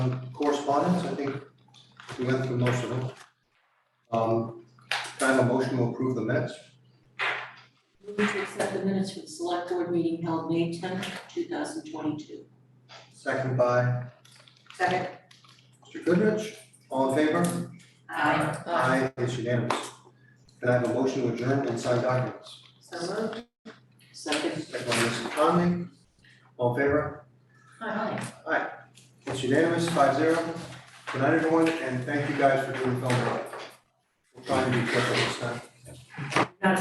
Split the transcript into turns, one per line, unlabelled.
correspondence, I think we went through most of them. Um, can I have a motion to approve the minutes?
Move to accept the minutes for the select board meeting held May tenth, two thousand twenty-two.
Second by
Second.
Mr. Goodrich, all in favor?
Aye.
Aye, it's unanimous. Can I have a motion to adjourn and sign documents?
So moved. Second.
Second by Mrs. Conley, all in favor?
Aye.
It's unanimous, five zero. Good night, everyone, and thank you guys for doing the film. We're trying to be careful this time.